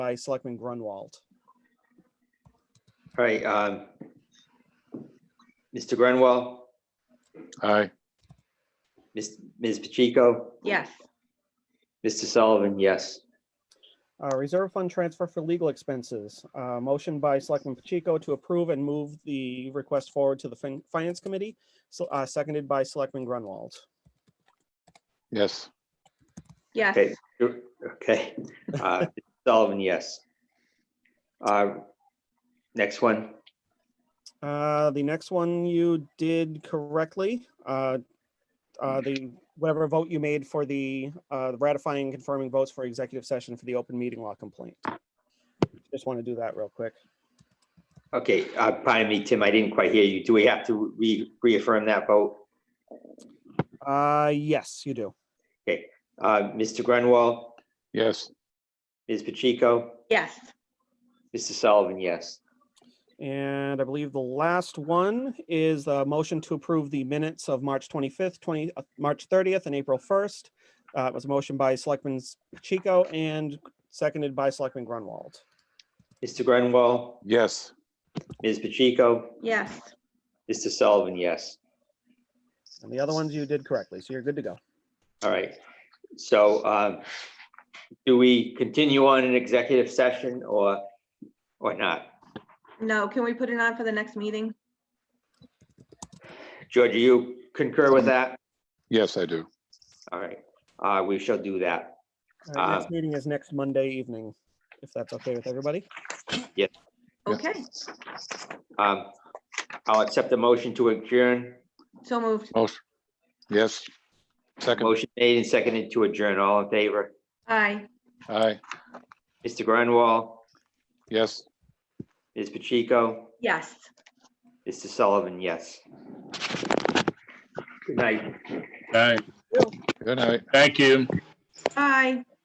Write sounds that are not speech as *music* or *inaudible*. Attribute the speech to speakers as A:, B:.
A: by Selectman Grunwald.
B: All right, um, Mr. Grenwell,
C: Aye.
B: Ms. Ms. Pacheco,
D: Yes,
B: Mr. Sullivan, yes.
A: Uh, Reserve fund transfer for legal expenses. Uh, Motion by Selectman Pacheco to approve and move the request forward to the fin- Finance Committee, so- uh, seconded by Selectman Grunwald.
C: Yes.
D: yes,
B: Okay, okay, uh, *laughs* Sullivan, yes. Uh, next one,
A: Uh, The next one you did correctly. uh, uh, The, whatever vote you made for the uh, ratifying and confirming votes for executive session for the open meeting law complaint. Just want to do that real quick.
B: okay, uh, pardon me, Tim, I didn't quite hear you. Do we have to re- reaffirm that vote?
A: Uh, Yes, you do.
B: Uh, Mr. Grenwell,
C: Yes.
B: Ms. Pacheco,
D: yes,
B: Mr. Sullivan, yes.
A: And I believe the last one is the motion to approve the minutes of March 25th, 20, uh, March 30th and April 1st. Uh, It was a motion by Selectman Pacheco and seconded by Selectman Grunwald.
B: Mr. Grenwell,
C: Yes.
B: Ms. Pacheco,
D: yes.
B: Mr. Sullivan, yes.
A: And the other ones you did correctly, so you're good to go.
B: All right, so um, do we continue on an executive session or, or not?
D: No, can we put it on for the next meeting?
B: George, do you concur with that?
C: Yes, I do.
B: All right, uh, we shall do that.
A: All right, Next
B: Uh,
A: meeting is next Monday evening, if that's okay with everybody.
C: Yeah.
D: Okay,
B: Um, I'll accept the motion to adjourn.
D: so moved.
C: Motion. Yes. Second.
B: Motion made and seconded to adjourn. All in favor?
D: Aye,
C: Aye.
B: Mr. Grunwall,
C: Yes.
B: Ms. Pacheco,
D: yes.
B: Mr. Sullivan, yes. Good night.
E: All right,
C: Good night.
E: thank you.
D: Aye.